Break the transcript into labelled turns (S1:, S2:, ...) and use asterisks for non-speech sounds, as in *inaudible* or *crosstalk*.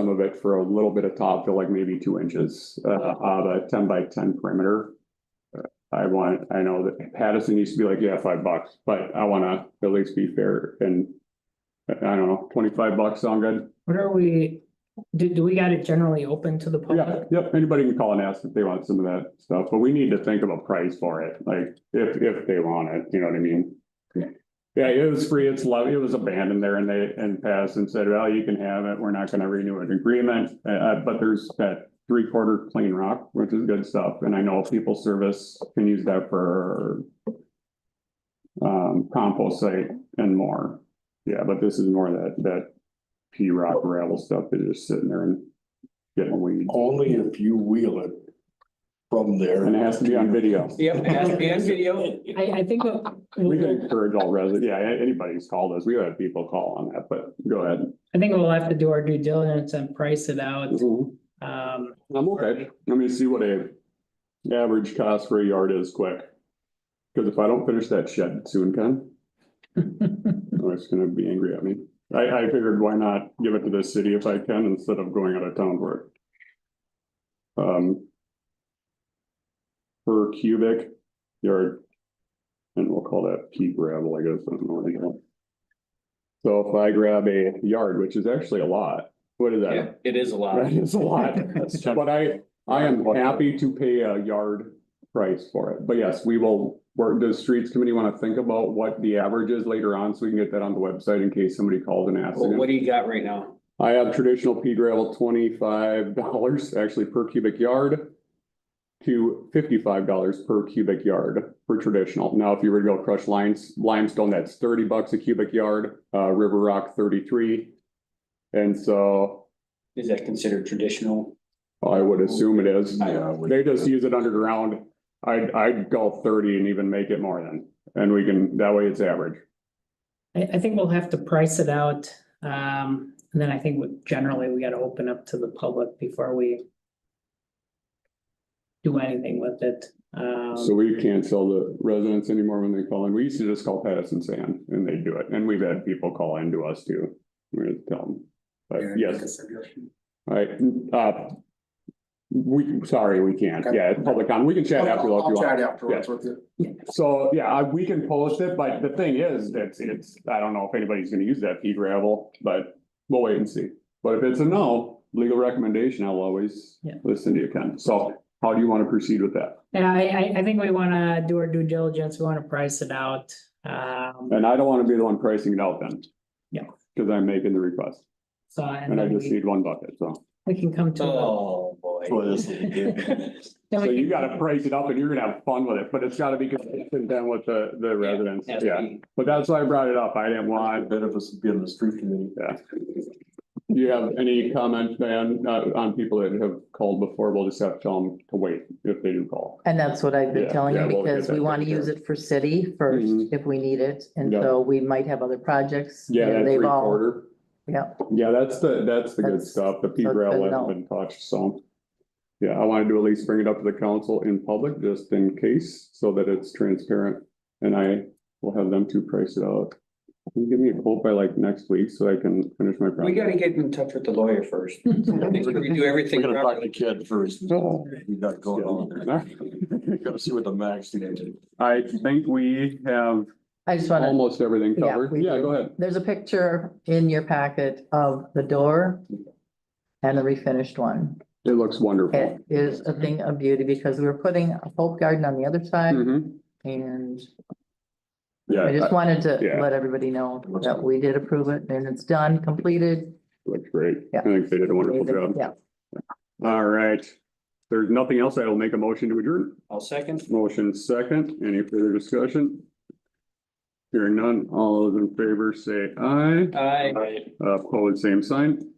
S1: some of it for a little bit of top to like maybe two inches, uh, of a ten by ten perimeter. Uh, I want, I know that Patterson used to be like, yeah, five bucks, but I wanna at least be fair and. I I don't know, twenty-five bucks sound good?
S2: What are we, do, do we got it generally open to the
S1: Yeah,
S2: public?
S1: yep, anybody can call and ask if they want some of that stuff, but we need to think of a price for it, like, if, if they want it, you know what I mean?
S2: Yeah.
S1: Yeah, it was free, it's love, it was abandoned there and they, and passed and said, well, you can have it, we're not gonna renew an agreement, uh, uh, but there's that three quarter plain rock, which is good stuff, and I know people service can use that for um, compost site and more, yeah, but this is more that, that P rock gravel stuff that is just sitting there and getting weeds.
S3: Only if you wheel it from there.
S1: And it has to be on video.
S4: Yep, it has to be on video.
S2: I, I think, what-
S1: We can encourage all residents, yeah, a- anybody's called us, we have people call on that, but go ahead.
S2: I think we'll have to do our due diligence and price it out, um.
S1: I'm okay, let me see what a average cost for a yard is quick. Cause if I don't finish that shed soon, Ken, oh, it's gonna be angry at me. I, I figured why not give it to the city if I can instead of going out of town for it. Um. Per cubic yard. And we'll call that pea gravel, I guess. I don't know what they call it. So if I grab a yard, which is actually a lot, what is that?
S4: Yeah, It is a lot.
S1: That is a
S4: *laughs*
S1: lot. But I, I am happy to pay a yard price for it. But yes, we will, work does streets committee want to think about what the average is later on? So we can get that on the website in case somebody calls and asks.
S4: Well, what do you got right now?
S1: I have traditional pea gravel twenty-five dollars actually per cubic yard. To fifty-five dollars per cubic yard for traditional. Now, if you were to go crush limes, limestone, that's thirty bucks a cubic yard, uh, river rock thirty-three. And so
S4: Is that considered traditional?
S1: I would assume it is.
S3: Yeah, we-
S1: They just use it underground. I'd, I'd go thirty and even make it more than, and we can, that way it's average.
S2: I, I think we'll have to price it out, um, and then I think we- generally we gotta open up to the public before we do anything with it, um.
S1: So we can't sell the residents anymore when they call in. We used to just call Patterson Sand and they do it. And we've had people call in to us too. We're gonna tell them. But yes, all right, uh, we, sorry, we can't. Yeah, it's public comment. We can chat after. if you
S3: I'll
S1: want.
S3: chat afterwards with you.
S1: So, yeah, I- we can post it, but the thing is, it's, it's, I don't know if anybody's gonna use that pea gravel, but we'll wait and see. But if it's a no, legal recommendation, I'll always
S2: Yeah.
S1: listen to you, Ken. So how do you wanna proceed with that?
S2: Yeah, I, I, I think we wanna do our due diligence, we wanna price it out, um,
S1: And I don't wanna be the one pricing it out then.
S2: Yeah.
S1: Cause I'm making the request
S2: so, and
S1: and I
S2: then
S1: just
S2: we,
S1: need one bucket, so.
S2: we can come to. a- *laughs*
S4: Oh, boy.
S2: then
S1: So
S2: we
S1: you
S2: can-
S1: gotta price it up and you're gonna have fun with it, but it's gotta be consistent then with the, the residents,
S4: Has to
S1: yeah.
S4: be.
S1: But that's why I brought it up. I didn't want
S3: Bit of us being the street committee.
S1: Yeah. Do you have any comment, man, uh, on people that have called before? We'll just have to tell them to wait if they do call.
S5: And that's what I've been
S1: Yeah,
S5: telling
S1: yeah,
S5: him,
S1: we'll get
S5: because we
S1: that
S5: want to
S1: taken
S5: use
S1: care of.
S5: it for city first,
S1: Mhm.
S5: if we need it, and
S1: Yeah.
S5: so we might have other projects.
S1: Yeah,
S5: and
S1: that
S5: they've
S1: three
S5: all-
S1: quarter.
S5: Yeah.
S1: Yeah, that's the, that's the good
S5: That's-
S1: stuff. The P
S5: that's
S1: rail
S5: good
S1: hasn't
S5: to know.
S1: been touched, so. Yeah, I wanted to at least bring it up to the council in public, just in case, so that it's transparent. And I will have them to price it out. Can you give me a quote by like next week so I can finish my
S4: We
S1: project?
S4: gotta get in touch with the lawyer first.
S1: *laughs*
S4: Make sure we do everything
S3: We gotta talk to
S4: properly.
S3: kid first.
S1: Oh.
S3: We got going on there. Gotta see what the max did.
S1: *laughs* I think we have
S5: I just want to,
S1: almost everything
S5: Yeah,
S1: covered.
S5: we
S1: Yeah,
S5: do.
S1: go ahead.
S5: there's a picture in your packet of the door and the refinished one.
S1: It looks wonderful.
S5: It is a thing of beauty, because we were putting a folk garden on the other side,
S1: Mhm.
S5: and
S1: Yeah.
S5: I just wanted to
S1: yeah.
S5: let everybody know that we did approve it, and it's done, completed.
S1: Looks great.
S5: Yeah.
S1: I think they did a wonderful job.
S5: Yeah,
S1: All right. There's nothing else. I will make a motion to adjourn.
S4: I'll second.
S1: Motion second. Any further discussion? Hearing none. All those in favor say aye.
S4: Aye.
S1: Uh, Opposed, same sign.